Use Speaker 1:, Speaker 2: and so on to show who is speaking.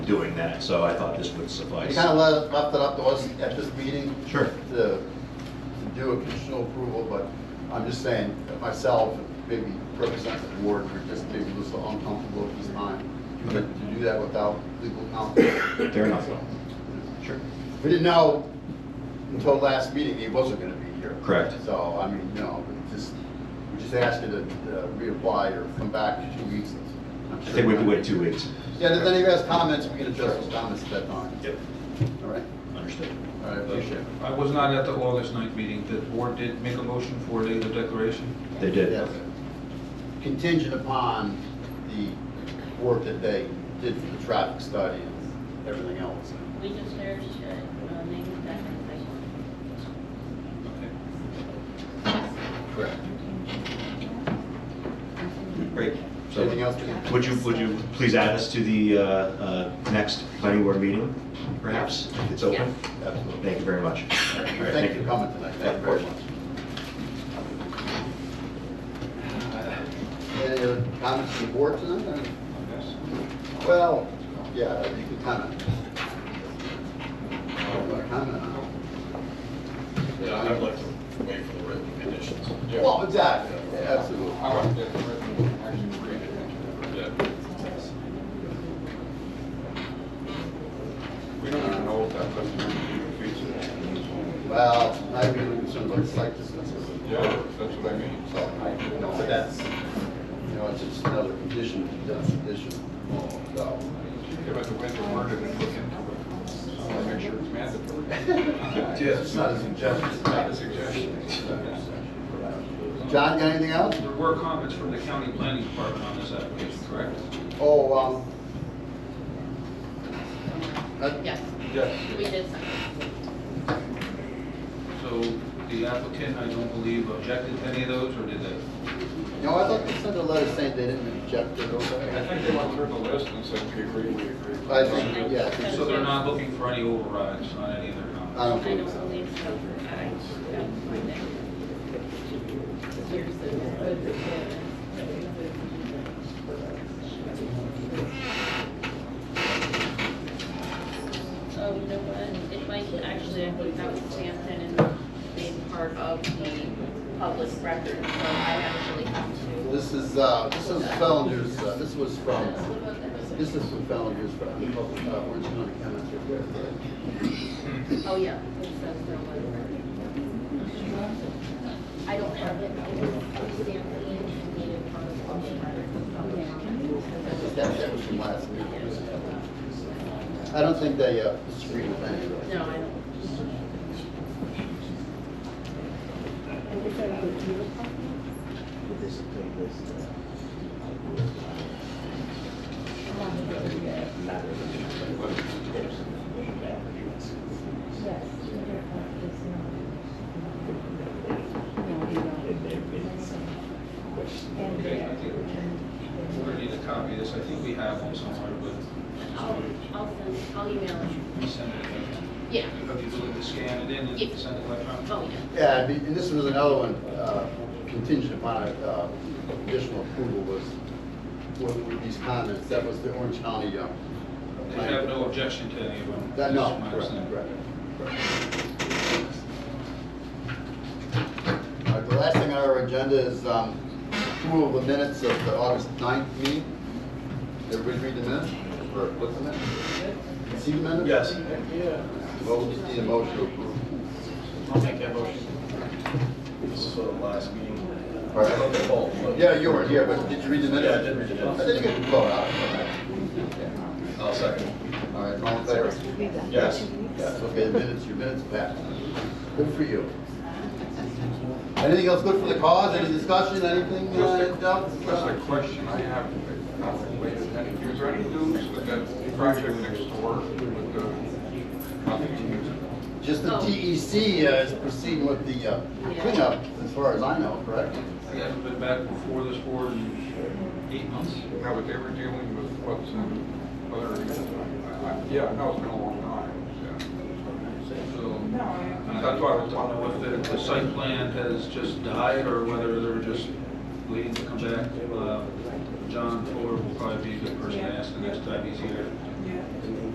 Speaker 1: doing that, so I thought this would
Speaker 2: You
Speaker 1: suffice.
Speaker 2: kind of left, left it up to us at this meeting
Speaker 1: Sure.
Speaker 2: to, to do a conditional approval, but I'm just saying, that myself, maybe representative Ward, were just maybe a little uncomfortable at this time. But to do that without legal counsel,
Speaker 1: Fair enough. Sure.
Speaker 2: we didn't know until last meeting he wasn't gonna be here.
Speaker 1: Correct.
Speaker 2: So, I mean, you know, we just, we just asked you to uh, reapply or come back in two weeks.
Speaker 1: I think we have to wait two weeks.
Speaker 2: Yeah, if anybody has comments, we can address those comments at that time.
Speaker 1: Yep,
Speaker 2: All right,
Speaker 1: understood.
Speaker 2: all right, appreciate it.
Speaker 3: I was not at the August 9th meeting. The board did make a motion for a legal declaration.
Speaker 1: They did.
Speaker 2: Yes. Contingent upon the work that they did for the traffic study and everything else.
Speaker 4: We just heard, uh, uh, name of that person.
Speaker 2: Correct.
Speaker 1: Great. So,
Speaker 2: Anything else? Jim?
Speaker 1: would you, would you please add us to the uh, uh, next planning board meeting, perhaps? If it's open?
Speaker 2: Absolutely.
Speaker 1: Thank you very much. All right,
Speaker 2: Thank you for coming tonight, thank you very much. Any other comments from the board tonight?
Speaker 3: Yes.
Speaker 2: Well, yeah, you can comment. I don't wanna comment on it.
Speaker 5: Yeah, I'd like to wait for the written conditions.
Speaker 2: Well, exactly, absolutely.
Speaker 3: I want to get the written, actually read it.
Speaker 5: Yeah.
Speaker 3: We don't even know if that customer is even feasible.
Speaker 2: Well, I'd be concerned about site distances.
Speaker 3: Yeah, that's what I mean.
Speaker 2: So, I- no, but that's, you know, it's just another condition, that's condition. So,
Speaker 3: Give it the winter word and then look into it. So I'll make sure it's mandatory.
Speaker 2: it's not a suggestion.
Speaker 3: It's not a suggestion.
Speaker 2: John, got anything else?
Speaker 3: There were comments from the county planning department on this application, correct?
Speaker 2: Oh, um. that-
Speaker 4: Yes,
Speaker 3: Yes.
Speaker 4: we did something.
Speaker 3: So the applicant, I don't believe, objected to any of those, or did they?
Speaker 2: No, I thought they sent a letter saying they didn't reject it or
Speaker 3: I
Speaker 2: something.
Speaker 3: think they went through the list and said, we agree, we agree.
Speaker 2: I think, yeah. I think
Speaker 3: So they're not looking for any overrides on any of their comments?
Speaker 2: I
Speaker 4: I
Speaker 2: don't
Speaker 4: don't
Speaker 2: believe so.
Speaker 4: believe so. I don't find it. Here's the- Oh, you know what? It might, actually, I think that was Sampson and made part of the public record, so I actually have to.
Speaker 2: This is, uh, this is Fellinger's, uh, this was from, this
Speaker 4: This
Speaker 2: is from Fellinger's, from, uh, Orange County Comments.
Speaker 4: Oh, yeah. It says no letter. I don't have it. I will stamp it in and need it part of the letter.
Speaker 2: That that was from last week. I don't think they uh, disagree with any of it.
Speaker 4: No, I don't.
Speaker 6: Yes.
Speaker 3: Okay, I think we're gonna need a copy of this, I think we have one somewhere,
Speaker 4: I'll,
Speaker 3: but
Speaker 4: I'll send, I'll email it.
Speaker 3: we send it again.
Speaker 4: Yeah.
Speaker 3: Have you looked to scan it in
Speaker 4: Yeah.
Speaker 3: and send it electronically?
Speaker 4: Oh, yeah.
Speaker 2: Yeah, and the- and this was another one uh, contingent upon uh, additional approval was, what were these comments, that was the Orange County. uh,
Speaker 3: They have no objection to any of them?
Speaker 2: That,
Speaker 3: This
Speaker 2: no,
Speaker 3: is my
Speaker 2: correct,
Speaker 3: understanding.
Speaker 2: correct. All right, the last thing on our agenda is um, approval of the minutes of the August 9th meeting. Everybody read the minutes, or what's the minute? See the minutes?
Speaker 1: Yes.
Speaker 2: Well, we just need a motion to approve.
Speaker 5: I'll make that motion. This is for the last meeting.
Speaker 2: All right. Yeah, you were here, but did you read the minutes?
Speaker 5: Yeah, I did read the minutes.
Speaker 2: I didn't get the vote out. Yeah.
Speaker 5: I'll second.
Speaker 2: All right, all in favor?
Speaker 5: Yes.
Speaker 2: Yes, okay, the minutes, your minutes passed. Good for you. Anything else good for the cause, any discussion, anything? uh, else?
Speaker 3: Just a question I have, not related to any, is there any news with that project next door with the, nothing news?
Speaker 2: Just the
Speaker 4: Oh.
Speaker 2: TEC uh, is proceeding with the uh, cleanup, as far as I know, correct?
Speaker 3: They haven't been back before this board in eight months?
Speaker 7: No, but they were dealing with what's in other, I- I- yeah, no, it's been a long time, yeah.
Speaker 3: So, I thought, I don't know if the, the site plan has just died, or whether they're just waiting to come back. Uh, John Fuller will probably be a good person to ask the next time he's here.
Speaker 5: and then